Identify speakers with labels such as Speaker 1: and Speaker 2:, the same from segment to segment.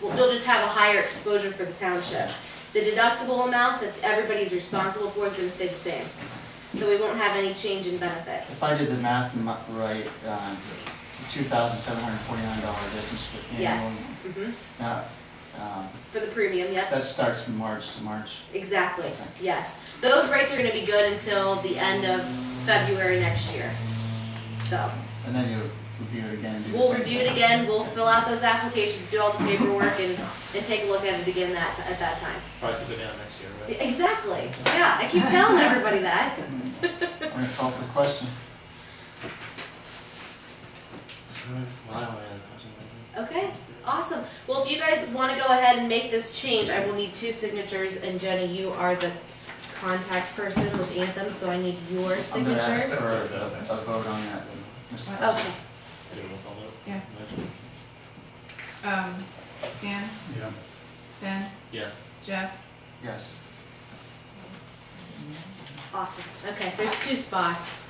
Speaker 1: Well, they'll just have a higher exposure for the township. The deductible amount that everybody's responsible for is gonna stay the same. So we won't have any change in benefits.
Speaker 2: If I did the math m- right, um, it's two thousand seven hundred forty-nine dollar difference for annual.
Speaker 1: Yes, mhm.
Speaker 2: Now, um,
Speaker 1: for the premium, yep.
Speaker 2: that starts from March to March.
Speaker 1: Exactly, yes. Those rates are gonna be good until the end of February next year. So,
Speaker 2: And then you review it again and do the
Speaker 1: we'll
Speaker 2: same
Speaker 1: review
Speaker 2: thing.
Speaker 1: it again, we'll fill out those applications, do all the paperwork, and, and take a look at it again that, ti- at that time.
Speaker 3: Prices go down next year, right?
Speaker 1: Exactly, yeah, I keep telling everybody that.
Speaker 2: I'm gonna call for the question.
Speaker 3: Well, I don't have any questions.
Speaker 1: Okay, awesome. Well, if you guys want to go ahead and make this change, I will need two signatures, and Jenny, you are the contact person with Anthem, so I need your
Speaker 2: I'm gonna ask
Speaker 1: signature. Oh.
Speaker 2: for a a vote on that, Mr.
Speaker 1: Okay,
Speaker 2: President.
Speaker 3: Do you want to follow up?
Speaker 4: Yeah.
Speaker 3: Motion?
Speaker 4: Um, Dan,
Speaker 5: Yeah,
Speaker 4: Ben,
Speaker 3: Yes.
Speaker 4: Jeff,
Speaker 2: Yes.
Speaker 1: awesome. Okay, there's two spots.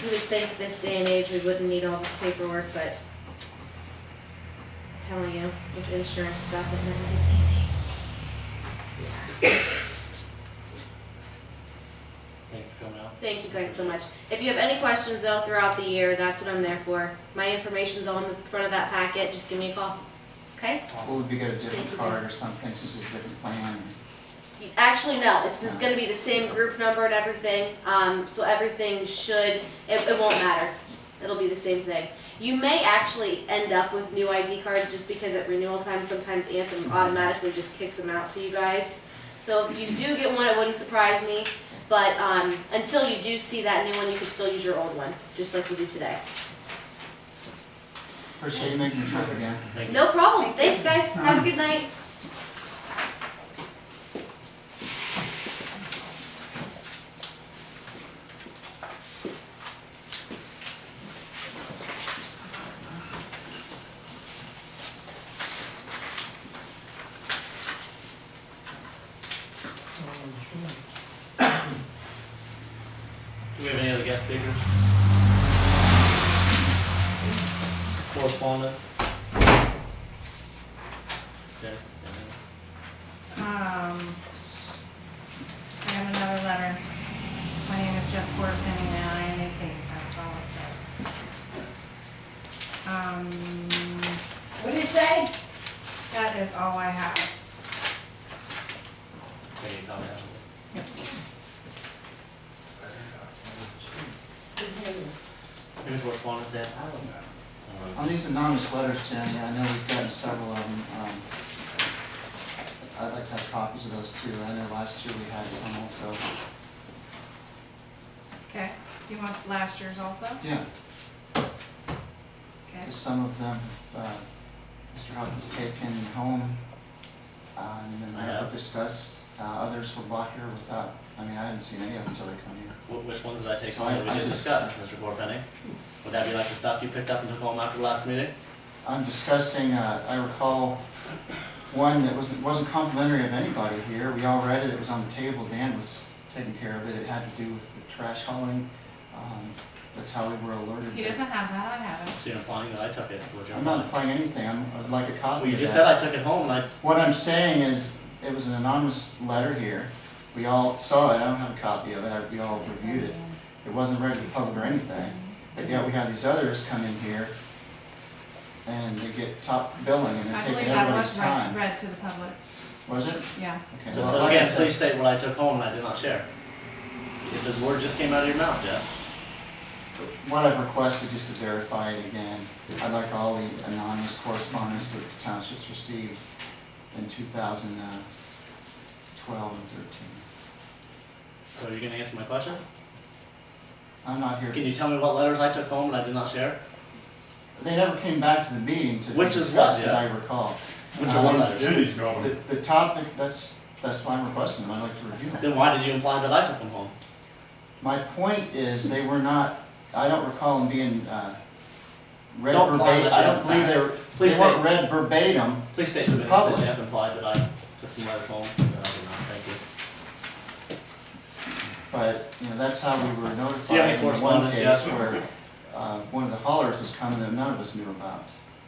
Speaker 1: You would think this day and age we wouldn't need all this paperwork, but I'm telling you, with insurance stuff, it never gets easy.
Speaker 3: Thank you for coming out.
Speaker 1: Thank you guys so much. If you have any questions though throughout the year, that's what I'm there for. My information's on the front of that packet, just give me a call. Okay?
Speaker 2: Well, would we get a
Speaker 1: Thank you,
Speaker 2: different card or
Speaker 1: guys.
Speaker 2: something since it's a different plan?
Speaker 1: Actually, no, it's just gonna be the same group number and everything, um, so everything should, it, it won't matter. It'll be the same thing. You may actually end up with new ID cards just because at renewal time, sometimes Anthem automatically just kicks them out to you guys. So if you do get one, it wouldn't surprise me, but, um, until you do see that new one, you can still use your old one, just like you do today.
Speaker 2: Appreciate you making the trip again.
Speaker 3: Thank you.
Speaker 1: No problem. Thanks, guys. Have a good night.
Speaker 3: Do we have any other guest speakers? Correspondence? Okay.
Speaker 4: um, I have another letter. My name is Jeff Corfin and I am a thief, that's all it says. Um,
Speaker 6: What did it say?
Speaker 4: that is all I have.
Speaker 3: Can you comment? Any correspondence, Dan? All right.
Speaker 2: On these anonymous letters, Jenny, I know we've gotten several of them. um, I'd like to have copies of those too. I know last year we had some also.
Speaker 4: Okay, do you want last year's also?
Speaker 2: Yeah,
Speaker 4: Okay,
Speaker 2: some of them, uh, Mr. Hubbard's taken home uh, and then
Speaker 3: I
Speaker 2: I
Speaker 3: have.
Speaker 2: discussed. Uh, Others were brought here without, I mean, I hadn't seen any of them until they come here.
Speaker 3: Wh- Which ones did I take
Speaker 2: So I-
Speaker 3: home that we
Speaker 2: I
Speaker 3: didn't
Speaker 2: just-
Speaker 3: discuss, Mr. Corpenny? Would that be like the stuff you picked up and took home after the last meeting?
Speaker 2: I'm discussing, uh, I recall one that wasn't, wasn't complimentary of anybody here. We all read it, it was on the table, Dan was taking care of it. It had to do with the trash hauling. Um, That's how we were alerted.
Speaker 4: he doesn't have that, I have it.
Speaker 3: So you're implying that I took it, so what you're
Speaker 2: I'm not
Speaker 3: implying?
Speaker 2: implying anything, I'm, I'd like a
Speaker 3: Well,
Speaker 2: copy
Speaker 3: you
Speaker 2: of
Speaker 3: just
Speaker 2: that.
Speaker 3: said I took it home and I
Speaker 2: What I'm saying is, it was an anonymous letter here. We all saw it, I don't have a copy of it, I- we all reviewed it. It wasn't read to the public or anything, but yet we have these others come in here and they get top billing and they're
Speaker 4: I
Speaker 2: taking
Speaker 4: believe that
Speaker 2: everybody's
Speaker 4: was read,
Speaker 2: time.
Speaker 4: read to the public,
Speaker 2: Was it?
Speaker 4: yeah.
Speaker 2: Okay,
Speaker 3: So,
Speaker 2: well,
Speaker 3: so
Speaker 2: like I
Speaker 3: again,
Speaker 2: said-
Speaker 3: please state what I took home and I did not share. If This word just came out of your mouth, Jeff.
Speaker 2: What I've requested, just to verify it again, I'd like all the anonymous correspondence that the townships received in 2012 and 13.
Speaker 3: So you're gonna answer my question?
Speaker 2: I'm not here,
Speaker 3: Can you tell me what letters I took home and I did not share?
Speaker 2: they never came back to the meeting to
Speaker 3: Which is
Speaker 2: discuss
Speaker 3: what,
Speaker 2: it,
Speaker 3: yeah.
Speaker 2: I recall.
Speaker 3: Which
Speaker 2: Uh,
Speaker 3: are one letters?
Speaker 5: Jenny's got
Speaker 2: The,
Speaker 5: them.
Speaker 2: the topic, that's, that's why I'm requesting them, I'd like to review them.
Speaker 3: Then why did you imply that I took them home?
Speaker 2: My point is, they were not, I don't recall them being, uh, read
Speaker 3: Don't
Speaker 2: verbatim,
Speaker 3: lie unless
Speaker 2: I
Speaker 3: you
Speaker 2: don't
Speaker 3: have
Speaker 2: believe they
Speaker 3: facts.
Speaker 2: were,
Speaker 3: Please
Speaker 2: they weren't
Speaker 3: state.
Speaker 2: read verbatim.
Speaker 3: Please state
Speaker 2: To
Speaker 3: the
Speaker 2: the
Speaker 3: minutes that
Speaker 2: public.
Speaker 3: Jeff implied that I took some letters home. No, I did not. Thank you.
Speaker 2: But, you know, that's how we were
Speaker 3: Do you have
Speaker 2: notified
Speaker 3: any
Speaker 2: in one
Speaker 3: correspondence,
Speaker 2: case
Speaker 3: Jeff?
Speaker 2: where, uh, one of the haulers was coming that none of us knew about.